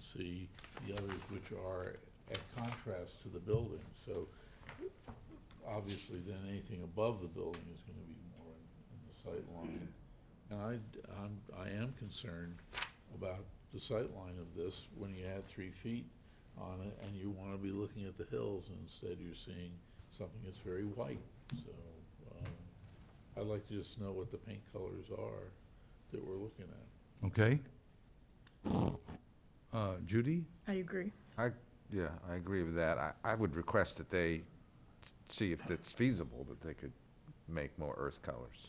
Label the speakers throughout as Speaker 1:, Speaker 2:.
Speaker 1: see the others which are at contrast to the building. So obviously then anything above the building is gonna be more in in the sight line. And I, I'm, I am concerned about the sight line of this when you add three feet on it and you wanna be looking at the hills and instead you're seeing something that's very white, so, um, I'd like to just know what the paint colors are that we're looking at.
Speaker 2: Okay? Uh, Judy?
Speaker 3: I agree.
Speaker 4: I, yeah, I agree with that. I, I would request that they see if it's feasible that they could make more earth colors.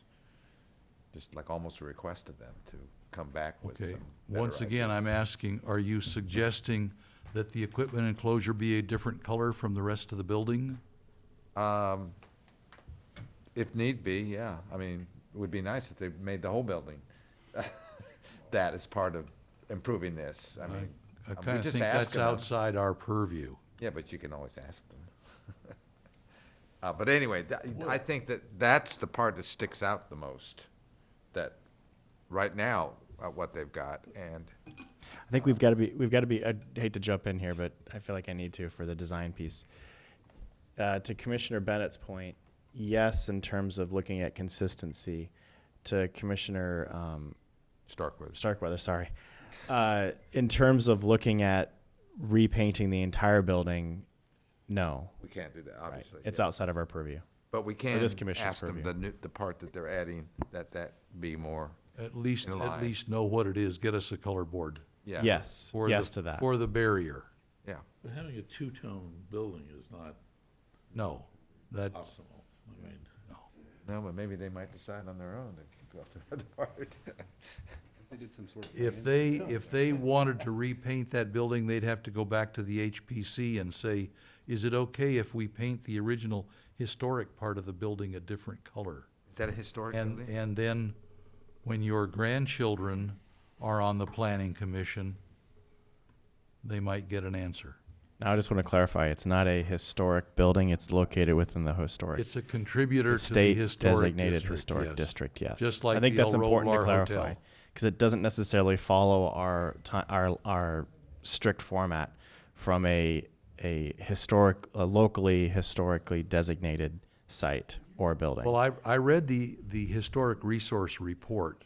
Speaker 4: Just like almost a request of them to come back with some
Speaker 2: Okay.
Speaker 4: better
Speaker 2: Once again, I'm
Speaker 4: ideas.
Speaker 2: asking, are you suggesting that the equipment enclosure be a different color from the rest of the building?
Speaker 4: Um, if need be, yeah. I mean, it would be nice if they made the whole building that as part of improving this. I mean,
Speaker 2: I
Speaker 4: we
Speaker 2: kind of
Speaker 4: just
Speaker 2: think that's
Speaker 4: asking them.
Speaker 2: outside our purview.
Speaker 4: Yeah, but you can always ask them. Uh, but anyway, tha- I think that that's the part that sticks out the most, that right now, uh, what they've got, and,
Speaker 5: I think we've got to be we've got to be. I hate to jump in here, but I feel like I need to for the design piece. Uh, to Commissioner Bennett's point, yes, in terms of looking at consistency. To Commissioner um,
Speaker 4: Starkweather.
Speaker 5: Starkweather, sorry. Uh, in terms of looking at repainting the entire building, no,
Speaker 4: we can't do that,
Speaker 5: Right.
Speaker 4: obviously.
Speaker 5: it's
Speaker 4: yeah.
Speaker 5: outside of our purview.
Speaker 4: But we can
Speaker 5: this commission's
Speaker 4: ask them
Speaker 5: purview.
Speaker 4: the new, the part that they're adding, that that be more,
Speaker 2: At least,
Speaker 4: In
Speaker 2: at
Speaker 4: line.
Speaker 2: least know what it is, get us a color board.
Speaker 4: yeah.
Speaker 5: Yes,
Speaker 2: for the-
Speaker 5: yes to that.
Speaker 2: For the barrier.
Speaker 4: Yeah,
Speaker 1: But having a two-tone building is not
Speaker 2: No, that,
Speaker 4: Oh.
Speaker 1: optimal. I mean,
Speaker 4: no, but maybe they might decide on their own to go to the other part.
Speaker 6: They did some sort of.
Speaker 2: if
Speaker 6: plan.
Speaker 2: they, if they wanted to repaint that building, they'd have to go back to the HPC and say, is it okay if we paint the original historic part of the building a different color?
Speaker 4: Is that a historic
Speaker 2: And,
Speaker 4: building?
Speaker 2: and then, when your grandchildren are on the planning commission, they might get an answer.
Speaker 5: Now I just want to clarify: it's not a historic building. It's located within the historic.
Speaker 2: It's a contributor
Speaker 5: the
Speaker 2: to the
Speaker 5: state
Speaker 2: historic
Speaker 5: designated
Speaker 2: district,
Speaker 5: historic
Speaker 2: yes.
Speaker 5: district. Yes,
Speaker 2: Just like
Speaker 5: I think
Speaker 2: the
Speaker 5: that's
Speaker 2: El
Speaker 5: important to
Speaker 2: Rolar
Speaker 5: clarify
Speaker 2: Hotel.
Speaker 5: because it doesn't necessarily follow our ti our our strict format from a a historic a locally historically designated site or building.
Speaker 2: Well, I, I read the, the historic resource report,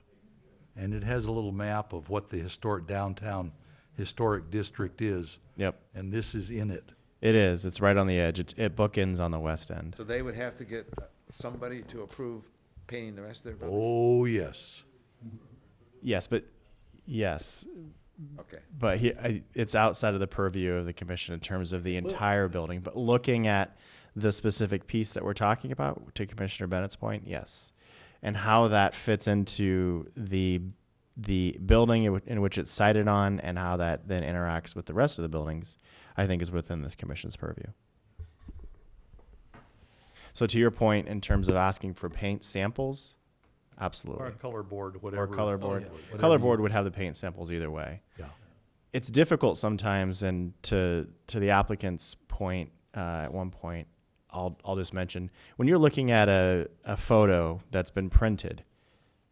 Speaker 2: and it has a little map of what the historic downtown historic district is,
Speaker 5: yep,
Speaker 2: and this is in it.
Speaker 5: it is. It's right on the edge. It, it bookends on the west end.
Speaker 4: So they would have to get somebody to approve painting the rest of their building?
Speaker 2: Oh, yes.
Speaker 5: Yes, but yes, Oh.
Speaker 4: Okay.
Speaker 5: but he, I, it's outside of the purview of the commission in terms of the entire building. But looking at the specific piece that we're talking about, to Commissioner Bennett's point, yes, and how that fits into the the building in, whi- in which it's sited on, and how that then interacts with the rest of the buildings, I think is within this commission's purview. So to your point, in terms of asking for paint samples, absolutely
Speaker 2: Or a color board,
Speaker 5: or
Speaker 2: whatever.
Speaker 5: color board.
Speaker 2: whatever
Speaker 5: Color
Speaker 2: you-
Speaker 5: board would have the paint samples either way.
Speaker 2: Yeah.
Speaker 5: It's difficult sometimes, and to to the applicant's point, uh, at one point, I'll I'll just mention when you're looking at a a photo that's been printed,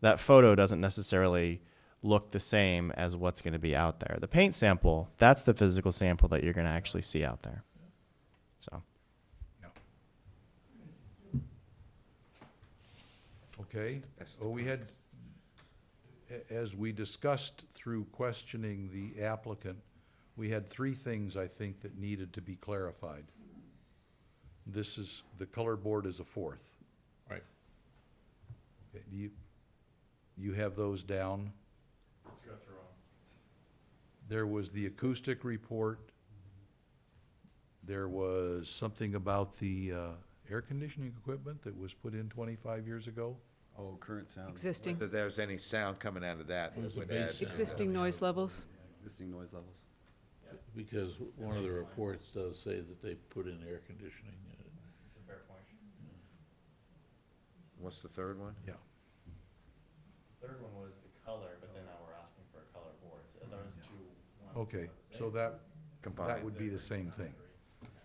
Speaker 5: that photo doesn't necessarily look the same as what's going to be out there. The paint sample, that's the physical sample that you're going to actually see out there. So
Speaker 2: Okay,
Speaker 4: That's the
Speaker 2: well, we had, a- as we discussed through questioning the applicant, we had three things, I think, that needed to be clarified. This is, the color board is a fourth.
Speaker 1: right.
Speaker 2: Okay, Do you, you have those down? There was the acoustic report. There was something about the, uh, air conditioning equipment that was put in twenty-five years ago.
Speaker 6: Oh, current sound.
Speaker 7: Existing,
Speaker 4: That there's any sound coming out of that that would add.
Speaker 7: existing noise levels.
Speaker 6: Yeah, Existing noise levels.
Speaker 1: Because one of the reports does say that they put in air conditioning. uh,
Speaker 4: What's the third one?
Speaker 2: Yeah.
Speaker 5: third one was the color, but then now we're asking for a color board. Those two.
Speaker 2: Okay, so that, that
Speaker 4: Combined.
Speaker 2: would be the same thing.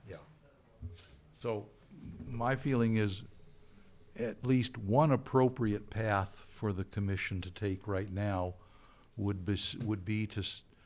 Speaker 2: Yeah. So my feeling is at least one appropriate path for the commission to take right now would be, s- would be to, s-